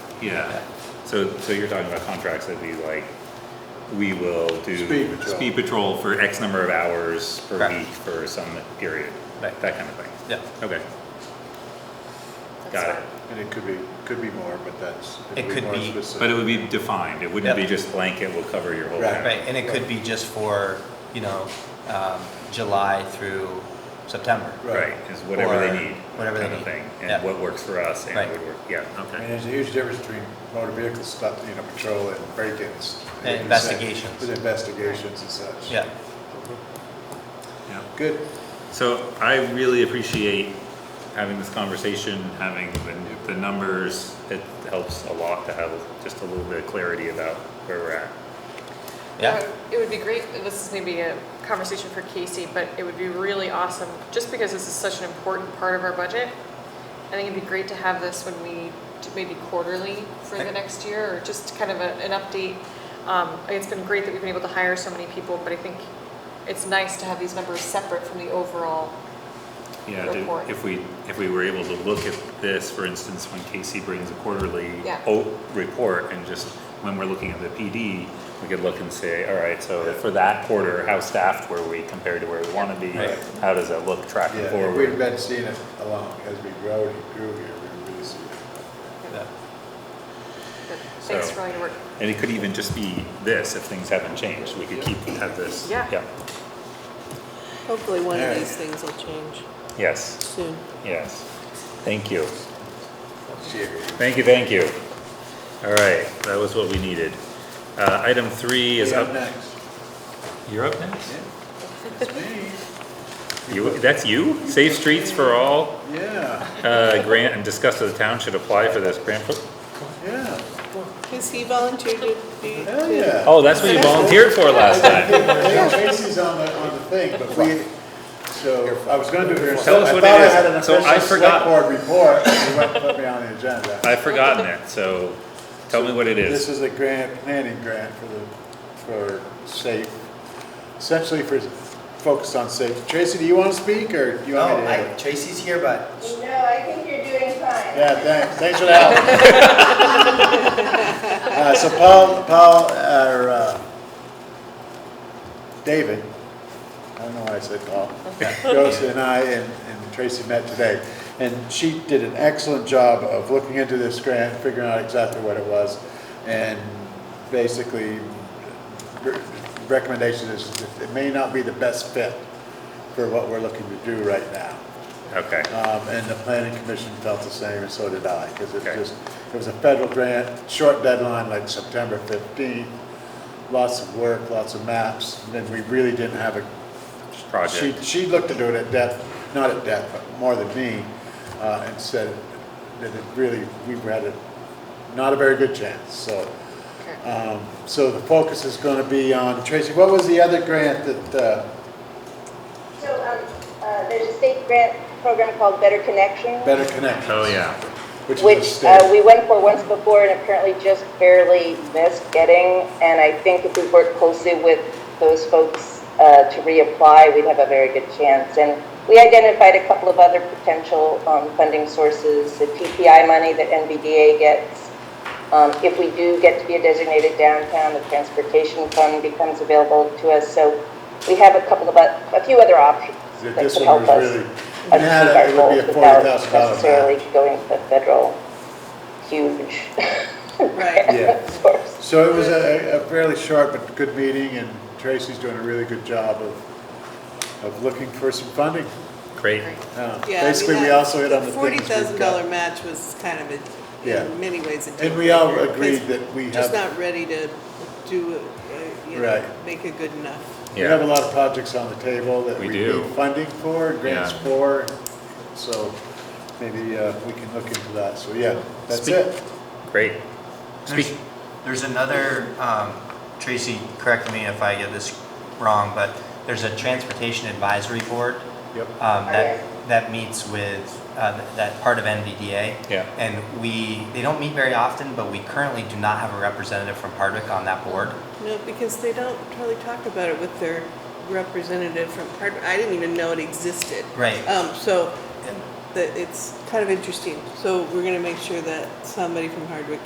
Yeah, so, so you're talking about contracts that'd be like, we will do. Speed patrol. speed patrol for X number of hours per Correct. week for some period, Right. that, that kind of thing. Yeah. Okay, That's got it. fine. And it could be, could be more, but that's. It would could more be, specific. But it would be defined, it wouldn't be Yeah. just blanket, will cover your whole Right. town. Right, and it could be just for, you know, um, July through September. Right, is whatever Or they need. whatever they kind of need. thing, Yeah. And what works for us and Right. would work, yeah, I mean, okay. there's a huge difference between motor vehicle stuff, you know, patrol and break-ins. And investigations. With investigations and such. Yeah, Yeah. Good. So I really appreciate having this conversation, having the, the numbers. It helps a lot to have just a little bit of clarity about where we're at. yeah, Uh, It would be great, this is maybe a conversation for Casey, but it would be really awesome, just because this is such an important part of our budget. I think it'd be great to have this when we, do maybe quarterly for the Okay. next year, or just kind of a- an update. Um, It's been great that we've been able to hire so many people, but I think it's nice to have these numbers separate from the overall. Yeah, do- Report. if we, if we were able to look at this, for instance, when Casey brings a quarterly Yeah. o- report and just when we're looking at the PD, we could look and say, all right, so for that quarter, how staffed were we compared to where we want to be? Right. How does that look tracking Yeah, if we'd forward? been seeing it along, as we grow and grew here, we would really see it. yeah, But Thanks So- for all your work. And it could even just be this, if things haven't changed, we could keep, have this. Yeah. Hopefully one of Alright. these things will change Yes. soon. Yes, thank you. Cheers. Thank you, thank you. All right, that was what we needed. Uh, item three is Yeah, up. next. You're up next? Yeah. It's me. You, that's you? Safe Streets for All, Yeah, uh, grant and discuss if the town should apply for this grant. pro- yeah. Because he volunteered to be. Hell, to- yeah. Oh, that's what you volunteered for last time. Yeah, Tracy's on the, on the thing, but we, so, I was gonna do it here. so Tell us I what thought it I is. had an So I official forgot. select board report, and you went and put me on the agenda. I've forgotten it, so tell me what it This is. is a grant, planning grant for the, for safe, essentially for, focused on safety. Tracy, do you wanna speak, or do you want me No, to? I, Tracy's here, but No, I think you're doing fine. Yeah, thanks, thanks for the help. Uh, so Paul, Paul, or, uh, David, I don't know why I said Paul, Josie and I and and Tracy met today. And she did an excellent job of looking into this grant, figuring out exactly what it was. And basically, re- recommendation is it may not be the best fit for what we're looking to do right now. Okay, Um, and the planning commission felt the same, and so did I, because it Okay. just, it was a federal grant, short deadline, like September fifteenth. Lots of work, lots of maps, and then we really didn't have a, she, project. she looked into it at depth, not at depth, but more than me, uh, and said that it really, we had a, not a very good chance, so. Okay. Um, so the focus is gonna be on, Tracy, what was the other grant that, uh, So, um, uh, there's a state grant program called Better Connections, Better Connections? Oh, yeah. Which is a which, uh, state. we went for once before and apparently just barely missed getting. And I think if we work closely with those folks, uh, to reapply, we'd have a very good chance. And we identified a couple of other potential, um, funding sources, the TPI money that NVDA gets. Um, if we do get to be a designated downtown, the transportation fund becomes available to us. So we have a couple of, oth- a few other options That that this could one help was us really, achieve it had, our a- it would be goals a forty without thousand dollar necessarily match. going to the federal huge Right. Yeah. source. So it was a, a fairly short but good meeting, and Tracy's doing a really good job of, of looking for some funding. Great. Uh, Yeah, I mean, Basically, we that also hit on the Forty things thousand we've dollar got. match was kind of a, Yeah. in many ways a deal. And we all breaker, agreed 'cause that we Just have, not ready to do, uh, you know, Right. make it good enough. we have a Yeah, lot of projects on the table that We we do. need funding for, grants Yeah. for, so maybe, uh, we can look into that, so yeah, that's Speak- it. great. there's, Speak, there's another, um, Tracy, correct me if I get this wrong, but there's a transportation advisory board Yep. um, that, that meets with, uh, that part of NVDA. Yeah. And we, they don't meet very often, but we currently do not have a representative from Hardwick on that board. No, because they don't really talk about it with their representative from Hardwick. I didn't even know it existed. Right. Um, so And that it's kind of interesting. So we're gonna make sure that somebody from Hardwick